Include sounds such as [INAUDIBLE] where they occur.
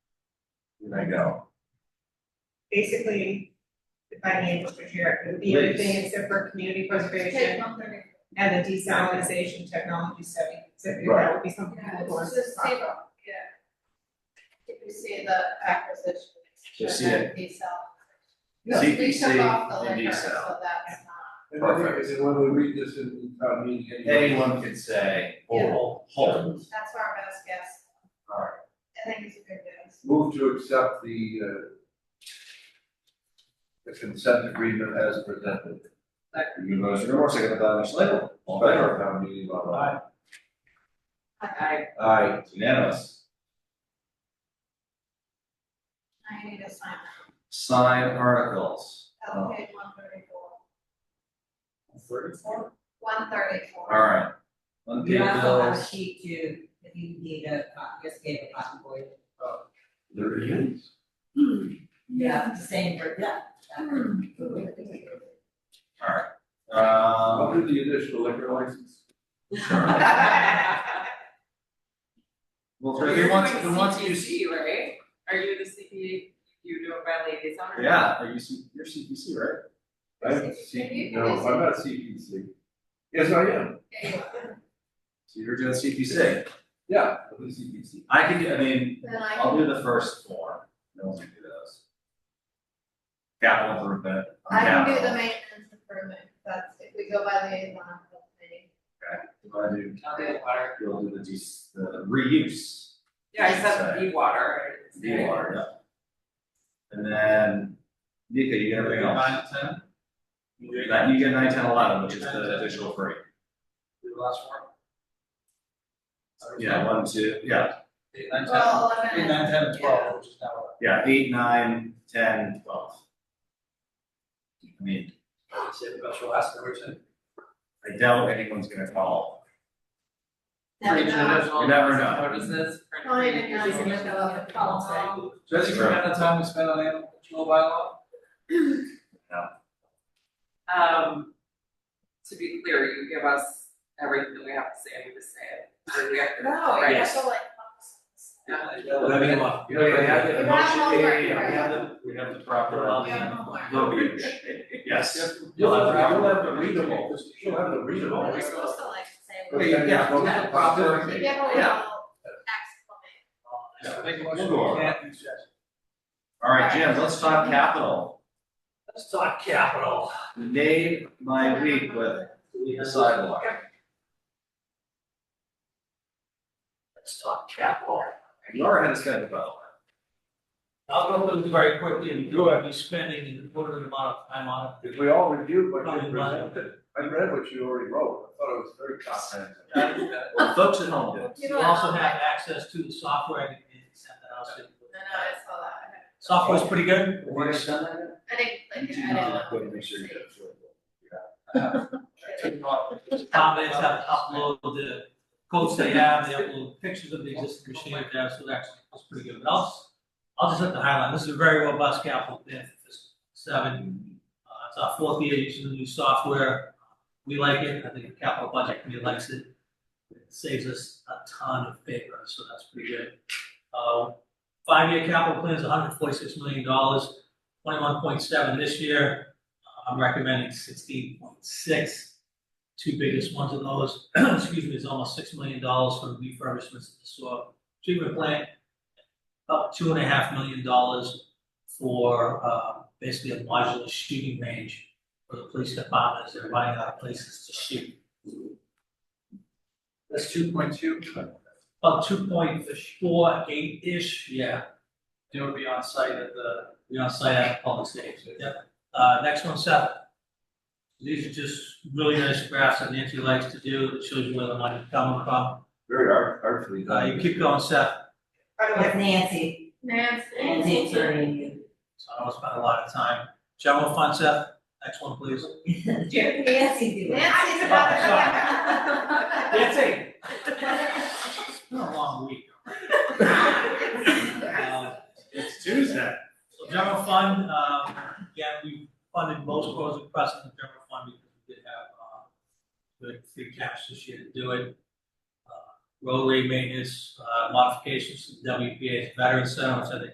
I know. basically, if I may, Mr. Chair, it would be everything except for community preservation and the desalinization technology study. So if that would be something Yeah, that it's we'll just the same, yeah. If you see the acquisition. So see it. Decel. We CPC took off the and liquor, decel. so that's not, And I think Perfect. that when we read this in in town meeting. anyway- Anyone could say, Yeah. oh, hold, that's our best guess. Alright. I think it's a good guess. Move to accept the, uh, the consent agreement as presented. you motion, your second by Mr. Label, all in favor, Special town meeting, blah, blah. I, Aye. It's unanimous. I need to sign Sign articles. that, Oh. That's page one thirty-four, Thirty-four? one thirty-four. Alright. Unpaid You also have a bills. sheet too, if you need a, copy, just gave a copy for you. There it is. Yeah, same for, yeah. Alright, um, I'll do the additional liquor license. sure. Well, for the ones, the ones you see. right? Are you the CPA, you do it by liaison Yeah, are you, C- you're CPC, right? I'm C, no, I'm not CPC. Yes, I am. Yeah, you are. So you're doing CPC. Yeah, I'm the CPC. I can, do- I mean, Then I I'll can, do the first four, no one can do those. Capital improvement. I can do capital. the maintenance improvement, that's, if we go by liaison, that's maybe. If I do Okay. water, you'll do the de- the reuse, Yeah, except the water. the water, yeah. And then, Nika, you got everything else? Nine, ten? That you get nine, ten, eleven, which is the additional free. Do the last one? Yeah, one, two, yeah, Eight, nine, ten. Well, Eight, eleven, nine, ten, and twelve, which is now. what? yeah, eight, nine, ten, twelve. I mean, Say the best for last, number ten. I doubt anyone's gonna call. never know. You never know. Don't even know if it's gonna go up. Jesse, Sure. remember the time we spent on animal control bylaw? Um, to be clear, you give us everything that we have to say, we just say it, we have to. No, Right. yeah. So like, You know, we have You the motion, yeah, have yeah, homework, yeah, we right? have the, we have the proper. um, you have homework. [LAUGHS] Verbiage, yes. You'll have, you'll have the readable, you'll have the Are readable. we supposed to like say? Okay, yeah, Those are yeah, proper- You give a little Yeah. exclamation. Yeah, Make a motion, We'll go we can't do Jesse. All right, Jim, let's talk capital. Let's talk capital. Made my week with the sidewalk. Let's talk capital. You are ahead of schedule, by the way. I'll go through this very quickly and go, I'll be spending an important amount of time on it. If we all reviewed what you Coming by. presented, I read what you already wrote, I thought it was very comprehensive. Well, folks at home did. You You don't also know, have like- access to the software and send that out to you. I know, I saw that. Software's pretty good. Wanna send that? I didn't, like, You I know, didn't. like, wait, make sure you get it through. Comments have to upload the codes they have, they upload pictures of the existing machine they have, so that's, that's pretty good. But I'll, s- I'll just hit the highlight, this is a very robust capital plan for fiscal seven. Uh, it's our fourth year using the new software, we like it, I think the capital budget committee likes it. It Saves us a ton of paper, so that's pretty good. Uh, five-year capital plan is hundred forty-six million dollars, twenty-one point seven this year. Uh, I'm recommending sixteen point six two biggest ones of those, [CLEARS THROAT] excuse me, is almost six million dollars for refurbishments to the soil treatment plant. About two and a half million dollars for, uh, basically a modular shooting range for the police department, as they're running out of places to shoot. That's two point two. About two point four eight-ish, yeah. It would be on site at the. Be on site at public stage, yep. Uh, next one, seven. These are just really nice graphs that Nancy likes to do, that shows you where the money's coming from. Very art- artfully Uh, done. you keep going, Seth, With Nancy, Nancy. Nancy attorney. so I don't spend a lot of time. General fund, Seth, next one, please. Nancy did. it. Nancy's about to. Nancy. It's been a long week. [LAUGHS] Uh, It's Tuesday. so General fund, um, again, we funded most roads across the general fund because we did have, uh, good free cash this year to do it. Uh, Roadway maintenance, uh, modifications, to WPA 's veteran center, which I think